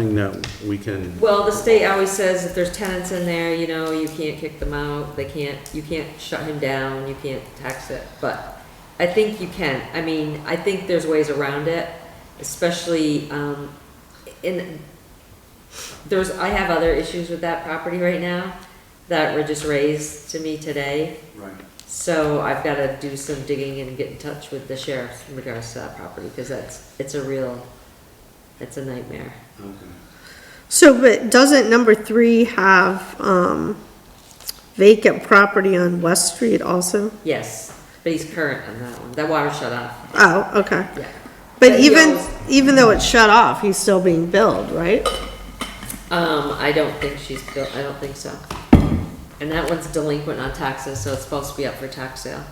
thing that we can, Well, the state always says if there's tenants in there, you know, you can't kick them out, they can't, you can't shut him down, you can't tax it, but I think you can, I mean, I think there's ways around it, especially, um, in, there's, I have other issues with that property right now that were just raised to me today, Right. so I've gotta do some digging and get in touch with the sheriff in regards to that property, because that's, it's a real, it's a nightmare. Okay. So, but doesn't number three have, um, vacant property on West Street also? Yes, but he's current on that one. That water shut off. Oh, okay. Yeah. But But he even, owns- even though it's shut off, he's still being billed, right? Um, I don't think she's built, I don't think so. And that one's delinquent on taxes, so it's supposed to be up for tax sale.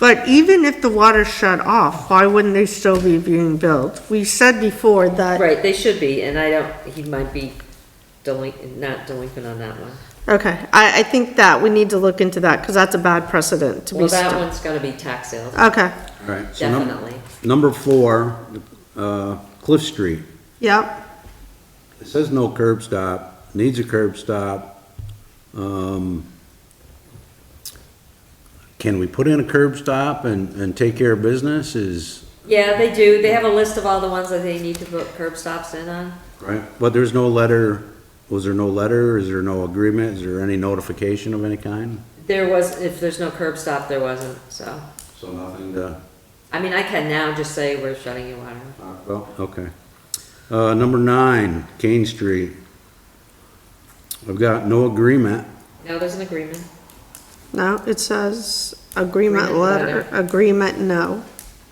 But even if the water's shut off, why wouldn't they still be being billed? We said before that, Right, they should be, and I don't, he might be delinquent, not delinquent on that one. okay, I, I think that we need to look into that, cause that's a bad precedent to be Well, that set. one's gonna be tax sale, Okay, all right. so num- definitely. Number four, uh, Cliff Street. yep, It says no curb stop, needs a curb stop. Um, Can we put in a curb stop and, and take care of business is, Yeah, they do. They have a list of all the ones that they need to put curb stops in on. right? But there's no letter, was there no letter? Is there no agreement? Is there any notification of any kind? There was, if there's no curb stop, there wasn't, so. So nothing to I mean, I can now just say we're shutting your water off. talk about? Okay. Uh, number nine, Kane Street. I've got no agreement. No, there's an agreement. no, it says agreement Agreement letter, letter. agreement no,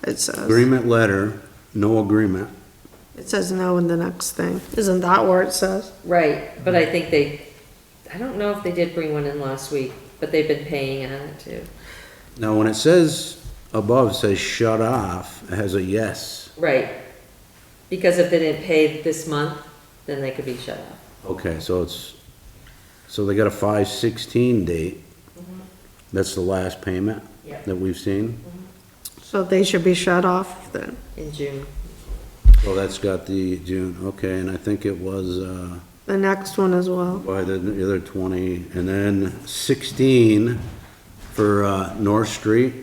it says. Agreement letter, no agreement. It says no in the next thing, isn't that where it says? Right, but I think they, I don't know if they did bring one in last week, but they've been paying on it too. Now, when it says above, it says shut off, it has a yes. Right, because if they didn't pay this month, then they could be shut off. Okay, so it's, so they got a five sixteen date. That's the last payment Yeah. that we've seen. So they should be shut off then. In June, Well, that's got the June, okay, and I think it was, uh, The next one as well. by the the other twenty, and then sixteen for, uh, North Street.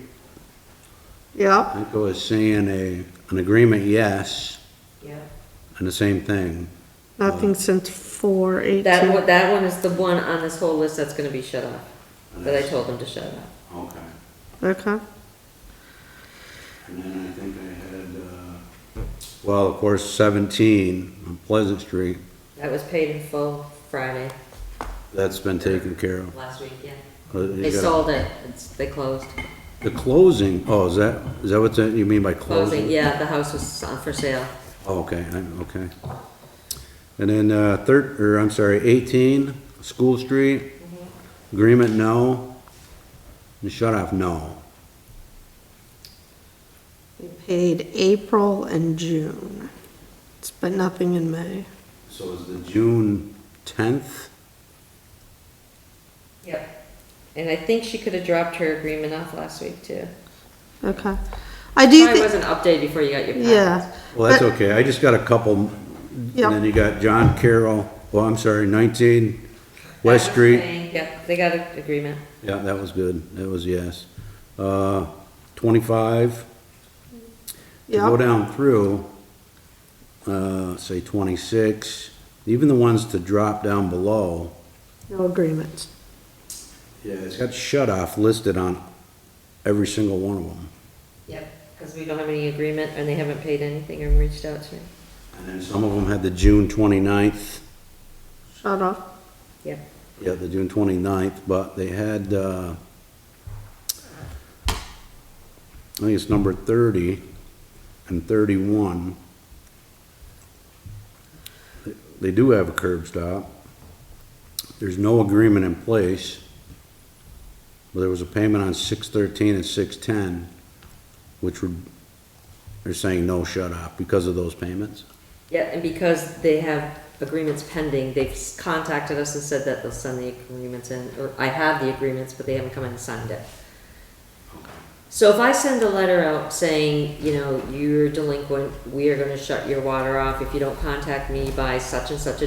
I Yep, think I was seeing a, an agreement, yes, yeah. and the same thing. nothing since four That eighteen. one, that one is the one on this whole list that's gonna be shut off, that I told them to shut off. Okay. Okay, And then I think I had, uh. Well, of course, seventeen on Pleasant Street, That was paid in full Friday, that's been taken care of. last week, yeah. Uh, you They got- sold it, it's, they closed. The closing, oh, is that, is that what that- you mean by closing? Closing, yeah, the house was on for sale. Oh, Okay, I- okay. And then, uh, third, or I'm sorry, eighteen, School Street, Mm-hmm. agreement, no. And shut off, no. we paid April and June, It's- but nothing in May. So is the June tenth? Yep. And I think she could've dropped her agreement off last week too. Okay, I do Probably think, wasn't updated before you got your packets. yeah. Well, that's but- okay, I just got a couple, and Yeah. then you got John Carroll, oh, I'm sorry, nineteen West Street. Yeah, they got an agreement. Yeah, that was good, that was yes. Uh, twenty-five, You go Yep. down through, uh, say twenty-six, even the ones to drop down below. No agreements. Yeah. It's got shut off listed on every single one of them. Yep. Because we don't have any agreement and they haven't paid anything or reached out to me. And then some of them had the June twenty-ninth, Shut off. Yep. yeah, the June twenty-ninth, but they had, uh, I think it's number thirty and thirty-one. They- They do have a curb stop. There's no agreement in place. But there was a payment on six thirteen and six ten, which would, they're saying no shut off because of those payments. Yeah, and because they have agreements pending, they've contacted us and said that they'll send the agreements in, or I have the agreements, but they haven't come in and signed it. So if I send a letter out saying, you know, you're delinquent, we are gonna shut your water off if you don't contact me by such and such a